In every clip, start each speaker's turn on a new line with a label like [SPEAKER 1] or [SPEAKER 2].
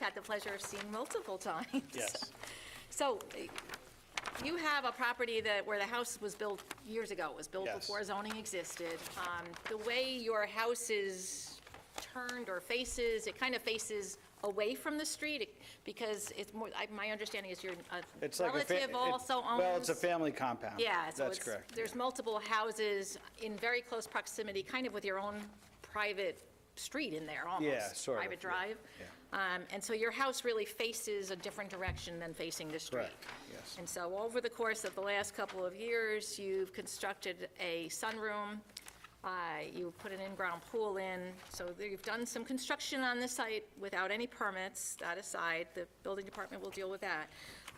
[SPEAKER 1] had the pleasure of seeing multiple times.
[SPEAKER 2] Yes.
[SPEAKER 1] So eh, you have a property that, where the house was built years ago, It was built
[SPEAKER 2] Yes.
[SPEAKER 1] before zoning existed. Um, The way your house is turned or faces, it kind of faces away from the street it- because it's more, I- my understanding is your uh,
[SPEAKER 2] It's like a fa-
[SPEAKER 1] relative
[SPEAKER 2] it-
[SPEAKER 1] also owns.
[SPEAKER 2] Well, it's a family compound.
[SPEAKER 1] Yeah, so
[SPEAKER 2] That's
[SPEAKER 1] it's,
[SPEAKER 2] correct.
[SPEAKER 1] there's multiple houses in very close proximity, kind of with your own private street in there, almost.
[SPEAKER 2] sort of,
[SPEAKER 1] Private
[SPEAKER 2] yeah,
[SPEAKER 1] drive.
[SPEAKER 2] yeah.
[SPEAKER 1] Um, And so your house really faces a different direction than facing the street.
[SPEAKER 2] Correct, yes.
[SPEAKER 1] And so over the course of the last couple of years, you've constructed a sunroom, uh, you put an in-ground pool in, so there- you've done some construction on the site without any permits, that aside, the building department will deal with that.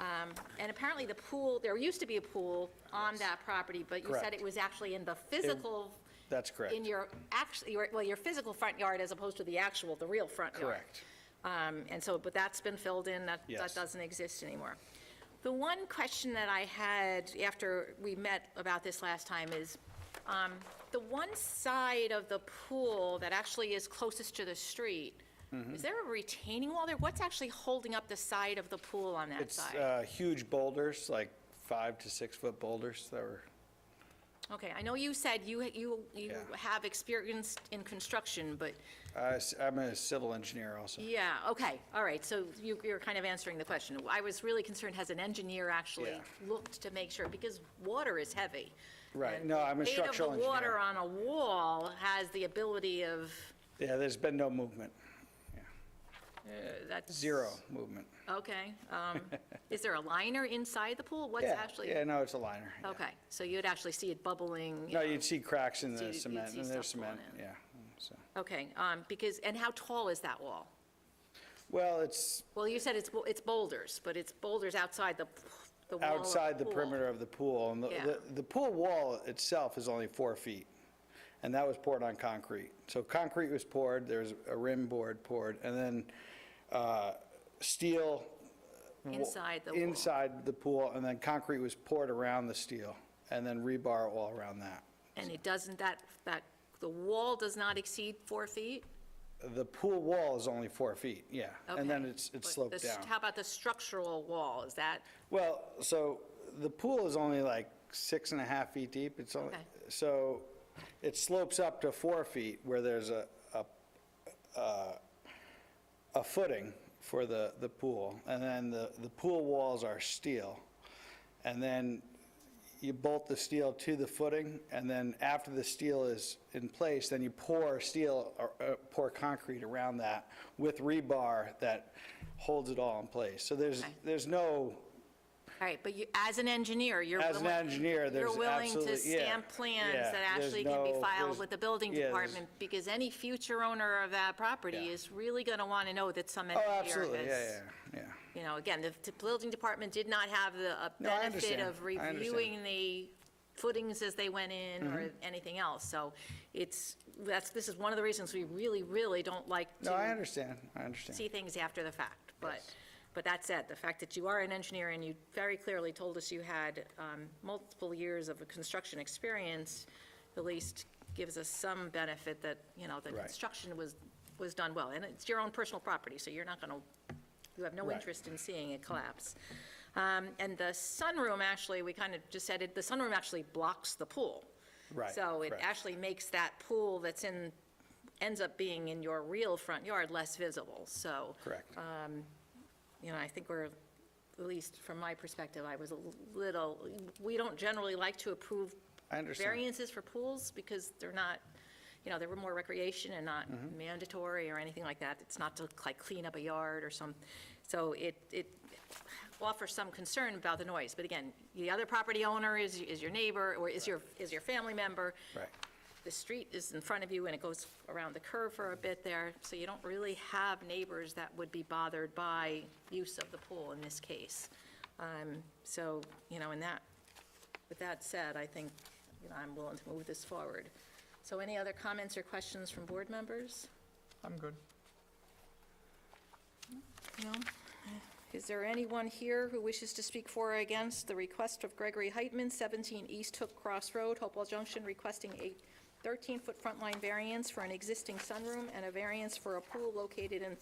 [SPEAKER 1] Um, And apparently the pool, there used to be a pool on that property, but you said
[SPEAKER 2] Correct.
[SPEAKER 1] it was actually in the physical.
[SPEAKER 2] That's correct.
[SPEAKER 1] In your, actually, well, your physical front yard as opposed to the actual, the real front yard.
[SPEAKER 2] Correct.
[SPEAKER 1] Um, And so, but that's been filled in, that, that
[SPEAKER 2] Yes.
[SPEAKER 1] doesn't exist anymore. The one question that I had after we met about this last time is, um, the one side of the pool that actually is closest to the street,
[SPEAKER 2] Mm-hmm.
[SPEAKER 1] is there a retaining wall there? What's actually holding up the side of the pool on that
[SPEAKER 2] It's
[SPEAKER 1] side?
[SPEAKER 2] uh, huge boulders, like five to six-foot boulders that were,
[SPEAKER 1] Okay, I know you said you, you, you
[SPEAKER 2] uh, Yeah.
[SPEAKER 1] have experience in construction, but,
[SPEAKER 2] I s- I'm a civil engineer also.
[SPEAKER 1] yeah, okay, all right, so you, you're kind of answering the question. I was really concerned, has an engineer actually
[SPEAKER 2] Yeah.
[SPEAKER 1] looked to make sure, because water is heavy.
[SPEAKER 2] Right,
[SPEAKER 1] And
[SPEAKER 2] no, I'm a
[SPEAKER 1] the
[SPEAKER 2] structural engineer.
[SPEAKER 1] Weight of the water on a wall has the ability of,
[SPEAKER 2] Yeah, there's been no movement,
[SPEAKER 1] uh, that's.
[SPEAKER 2] zero movement.
[SPEAKER 1] Okay, um, is there a liner inside the pool? What's
[SPEAKER 2] Yeah,
[SPEAKER 1] actually?
[SPEAKER 2] Yeah, no, it's a liner. yeah.
[SPEAKER 1] Okay, so you'd actually see it bubbling? you
[SPEAKER 2] No,
[SPEAKER 1] know.
[SPEAKER 2] you'd see cracks in
[SPEAKER 1] So you'd-
[SPEAKER 2] the
[SPEAKER 1] you'd
[SPEAKER 2] cement,
[SPEAKER 1] see
[SPEAKER 2] and there's
[SPEAKER 1] stuff going
[SPEAKER 2] cement, yeah. so.
[SPEAKER 1] Okay, um, because, and how tall is that wall?
[SPEAKER 2] Well, it's
[SPEAKER 1] Well, you said it's, bo- it's boulders, but it's boulders outside the, the wall of
[SPEAKER 2] outside the
[SPEAKER 1] pool.
[SPEAKER 2] perimeter of the pool. And the-
[SPEAKER 1] Yeah.
[SPEAKER 2] the, the pool wall itself is only four feet, and that was poured on concrete. So concrete was poured, there's a rim board poured, and then uh, steel. wa-
[SPEAKER 1] Inside the wall.
[SPEAKER 2] Inside the pool, and then concrete was poured around the steel, and then rebar all around that.
[SPEAKER 1] And it doesn't, that, that, the wall does not exceed four feet?
[SPEAKER 2] The pool wall is only four feet, yeah. And then
[SPEAKER 1] Okay.
[SPEAKER 2] it's, it's
[SPEAKER 1] But
[SPEAKER 2] sloped
[SPEAKER 1] the
[SPEAKER 2] down.
[SPEAKER 1] st- How about the structural wall, is that,
[SPEAKER 2] Well, so the pool is only like six and a half feet deep. It's only,
[SPEAKER 1] Okay.
[SPEAKER 2] so it slopes up to four feet where there's a, a, a- a footing for the, the pool. And then the, the pool walls are steel. And then you bolt the steel to the footing, and then after the steel is in place, then you pour steel, or uh, pour concrete around that with rebar that holds it all in place. So there's,
[SPEAKER 1] Okay.
[SPEAKER 2] there's no
[SPEAKER 1] all right, but you, as an engineer, you're.
[SPEAKER 2] as an
[SPEAKER 1] willing-
[SPEAKER 2] engineer, there's
[SPEAKER 1] You're willing to
[SPEAKER 2] absolutely- yeah,
[SPEAKER 1] stamp plans
[SPEAKER 2] yeah,
[SPEAKER 1] that
[SPEAKER 2] there's
[SPEAKER 1] actually can be
[SPEAKER 2] no-
[SPEAKER 1] filed
[SPEAKER 2] there's-
[SPEAKER 1] with the building
[SPEAKER 2] yeah, there's-
[SPEAKER 1] department, because any future owner of that property
[SPEAKER 2] Yeah.
[SPEAKER 1] is really gonna wanna know that some
[SPEAKER 2] Oh,
[SPEAKER 1] engineer has.
[SPEAKER 2] absolutely, yeah, yeah, yeah.
[SPEAKER 1] you know, again, the the building department did not have the uh,
[SPEAKER 2] No, I
[SPEAKER 1] benefit
[SPEAKER 2] understand.
[SPEAKER 1] of
[SPEAKER 2] I understand.
[SPEAKER 1] reviewing the footings as they went in or
[SPEAKER 2] Mm-hmm.
[SPEAKER 1] anything else. So it's, that's, this is one of the reasons we really, really don't like
[SPEAKER 2] No, I
[SPEAKER 1] to
[SPEAKER 2] understand, I understand.
[SPEAKER 1] see things after the fact. But, but that said, the fact that you are an engineer and you very clearly told us you had um, multiple years of construction experience, at least gives us some benefit that, you know, the
[SPEAKER 2] Right.
[SPEAKER 1] construction was, was done well. And it's your own personal property, so you're not going to you have no
[SPEAKER 2] Right.
[SPEAKER 1] interest in seeing it collapse. Um, And the sunroom, actually, we kind of just said, it. the sunroom actually blocks the pool.
[SPEAKER 2] Right,
[SPEAKER 1] So it
[SPEAKER 2] correct.
[SPEAKER 1] actually makes that pool that's in, ends up being in your real front yard less visible. So,
[SPEAKER 2] Correct.
[SPEAKER 1] Uh, you know, I think we're, at least from my perspective, I was a little, we don't generally like to approve
[SPEAKER 2] I understand.
[SPEAKER 1] variances for pools because they're not, you know, they were more recreation and not
[SPEAKER 2] Mm-hmm.
[SPEAKER 1] mandatory or anything like that. It's not to like clean up a yard or some, so it, it offers some concern about the noise. But again, the other property owner is, is your neighbor or is your, is your family member.
[SPEAKER 2] Right.
[SPEAKER 1] The street is in front of you and it goes around the curve for a bit there. So you don't really have neighbors that would be bothered by use of the pool in this case. Um, So, you know, in that with that said, I think, you know, I'm willing to move this forward. So any other comments or questions from board members?
[SPEAKER 3] I'm good.
[SPEAKER 1] No? Is there anyone here who wishes to speak for or against the request of Gregory Heitman, 17 East Hook Cross Road, Hopewell Junction, requesting a 13-foot front line variance for an existing sunroom and a variance for a pool located in